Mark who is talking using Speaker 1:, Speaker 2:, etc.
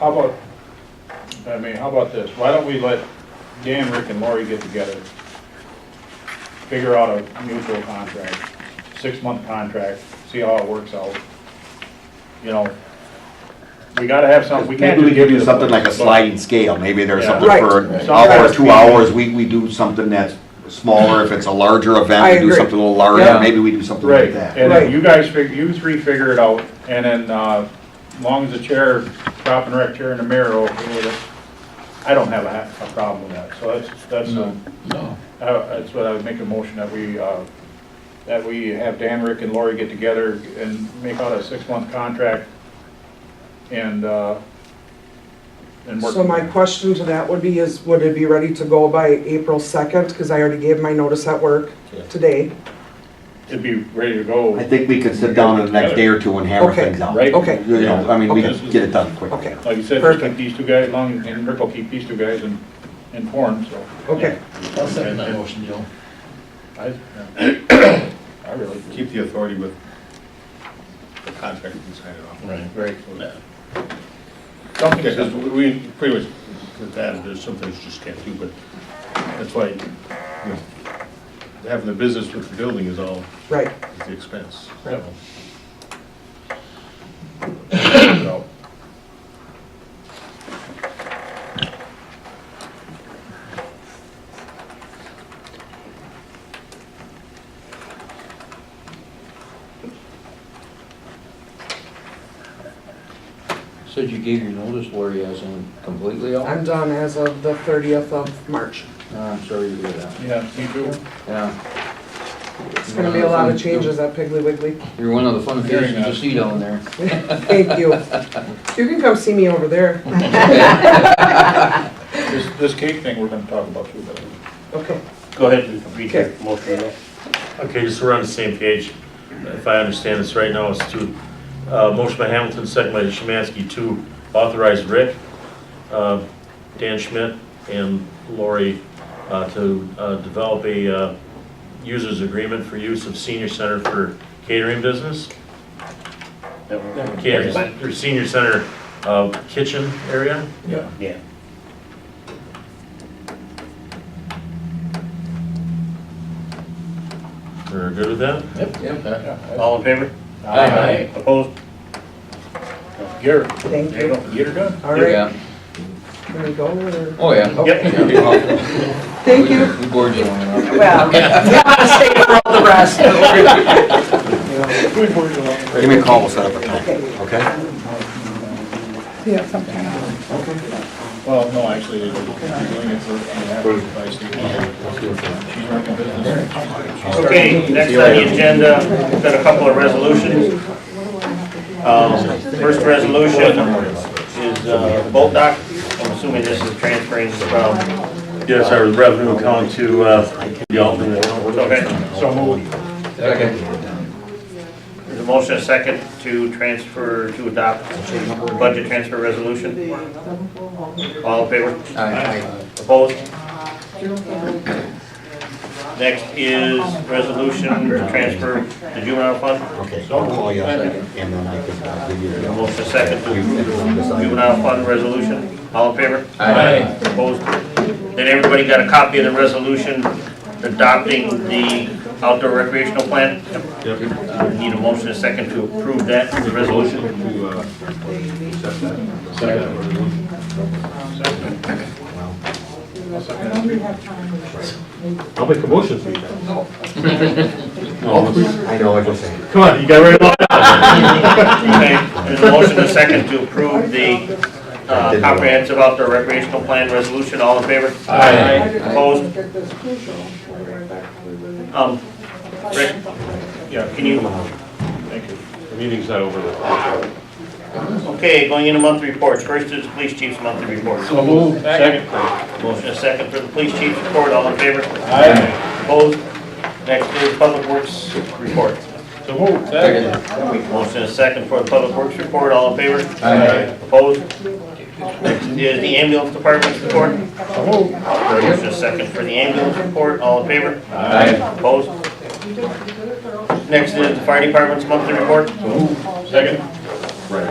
Speaker 1: How about, I mean, how about this? Why don't we let Dan, Rick, and Lori get together? Figure out a mutual contract, six-month contract, see how it works out. You know, we gotta have something, we can't just
Speaker 2: Maybe we
Speaker 1: give you
Speaker 2: do
Speaker 1: the-
Speaker 2: something like a sliding scale, maybe there's
Speaker 1: Yeah.
Speaker 2: something
Speaker 3: Right.
Speaker 2: for an
Speaker 1: Right.
Speaker 2: hour or
Speaker 1: Sometimes
Speaker 2: two
Speaker 1: we-
Speaker 2: hours, we, we do something that's smaller, if it's a larger
Speaker 3: I
Speaker 2: event, we do
Speaker 3: agree.
Speaker 2: something a little
Speaker 4: Yeah.
Speaker 2: larger, maybe we do something
Speaker 1: Right,
Speaker 2: like that.
Speaker 1: and
Speaker 3: Right.
Speaker 1: then you guys figure, you three figure it out, and then, uh, as long as the chair, prop and rec chair and the mirror are okay with it, I don't have a, ha- a problem with that, so that's, that's, uh,
Speaker 4: No.
Speaker 1: Uh, That's what I would make a motion that we, uh, that we have Dan, Rick, and Lori get together and make out a six-month contract and, uh, and work.
Speaker 3: So my question to that would be is, would it be ready to go by April 2nd? Because I already gave my notice at work today.
Speaker 1: It'd be ready to go.
Speaker 2: I think we could sit down in the next day or two and hammer
Speaker 3: Okay.
Speaker 2: things out.
Speaker 1: Right.
Speaker 3: Okay.
Speaker 2: You know, I mean, we
Speaker 1: Okay.
Speaker 2: can get it done quickly.
Speaker 3: Okay.
Speaker 1: Like you said, just keep
Speaker 3: Perfect.
Speaker 1: these two guys along, and Rick will keep these two guys in- informed, so.
Speaker 3: Okay,
Speaker 4: I'll second that motion, Joe.
Speaker 1: I I really.
Speaker 5: Keep the authority with the contractor who signed it off.
Speaker 4: Right.
Speaker 1: Great.
Speaker 5: Yeah, 'cause
Speaker 1: Something,
Speaker 5: we- we pretty much, with that, there's some things you just can't do, but that's why, you know, having the business with the building is all,
Speaker 3: right.
Speaker 5: is the expense.
Speaker 1: Yep.
Speaker 5: So,
Speaker 4: Said you gave your notice, Lori, as in completely out?
Speaker 3: I'm done as of the 30th of March.
Speaker 4: Uh, I'm sorry to hear that.
Speaker 1: yeah, me too.
Speaker 4: Yeah.
Speaker 3: It's going to be a lot of changes at Piggly Wiggly.
Speaker 4: You're one of the fun
Speaker 1: Very
Speaker 4: faces to
Speaker 1: nice.
Speaker 4: see down there.
Speaker 3: Thank you. You can come see me over there.
Speaker 1: This, this cake thing we're gonna talk about too, but.
Speaker 3: Okay.
Speaker 6: Go ahead and read
Speaker 3: Okay.
Speaker 6: your motion. now.
Speaker 5: Okay,
Speaker 6: Okay, just so we're on the same page, if I understand this right now, it's to, uh, motion by Hamilton, second by Szymanski, to authorize Rick, uh, Dan Schmidt, and Lori uh, to uh, develop a uh, user's agreement for use of senior center for catering business. Catering, or senior center uh, kitchen area.
Speaker 1: Yeah.
Speaker 6: Yeah. We're good with that?
Speaker 4: Yep, yep.
Speaker 6: All in favor?
Speaker 4: Aye.
Speaker 6: Opposed?
Speaker 1: Get her,
Speaker 3: Thank
Speaker 1: there you
Speaker 3: you.
Speaker 1: go, get her done.
Speaker 3: All right, can we go or?
Speaker 4: uh, Oh, yeah.
Speaker 6: Yep.
Speaker 4: Thank
Speaker 3: Thank you.
Speaker 4: We gorge you on it.
Speaker 7: Well, you want to stay for all the rest.
Speaker 1: Good work, Joel.
Speaker 2: Give me a call, we'll set up a time,
Speaker 7: Okay.
Speaker 2: okay?
Speaker 7: Yeah, something else.
Speaker 1: Well, no, actually, they're doing it for, by state law. She's running a business.
Speaker 6: Okay, next on the agenda, we've got a couple of resolutions. Um, First resolution is uh, boat dock, I'm assuming this is transferring from.
Speaker 5: Yes, our revenue account to, uh, the alternate.
Speaker 6: Okay,
Speaker 1: So moved.
Speaker 6: there's a motion, a second, to transfer, to adopt budget transfer resolution. All in favor?
Speaker 4: Aye.
Speaker 6: Opposed? Next is resolution to transfer the juvenile fund.
Speaker 2: Okay, I'll
Speaker 5: Oh,
Speaker 2: call you, and then I can uh, give you the.
Speaker 6: Motion is second to juvenile fund resolution. All in favor?
Speaker 4: Aye.
Speaker 6: Opposed? Then everybody got a copy of the resolution adopting the outdoor recreational plan? Uh, Need a motion and a second to approve that, the resolution?
Speaker 5: To, uh, accept that.
Speaker 8: I'll make a motion for you then.
Speaker 2: I know, I can say.
Speaker 8: Come on, you got it right along.
Speaker 6: Okay, there's a motion and a second to approve the uh, comprehensive outdoor recreational plan resolution. All in favor?
Speaker 4: Aye.
Speaker 6: Opposed? Um, Rick, yeah, can you,
Speaker 1: Thank you.
Speaker 8: The meeting's not over though.
Speaker 6: okay, going into monthly reports. First is the police chief's monthly report.
Speaker 1: So moved. Second.
Speaker 6: Motion a second for the police chief's report, all in favor?
Speaker 1: Aye.
Speaker 6: Opposed? Next is public works report.
Speaker 1: So moved. Second.
Speaker 4: Second.
Speaker 6: Motion a second for the public works report, all in favor?
Speaker 4: Aye.
Speaker 6: Opposed? Next is the ambulance department's report.
Speaker 1: So moved.
Speaker 6: Motion a second for the ambulance report, all in favor?
Speaker 4: Aye.
Speaker 6: Opposed? Next is the fire department's monthly report.
Speaker 1: Second.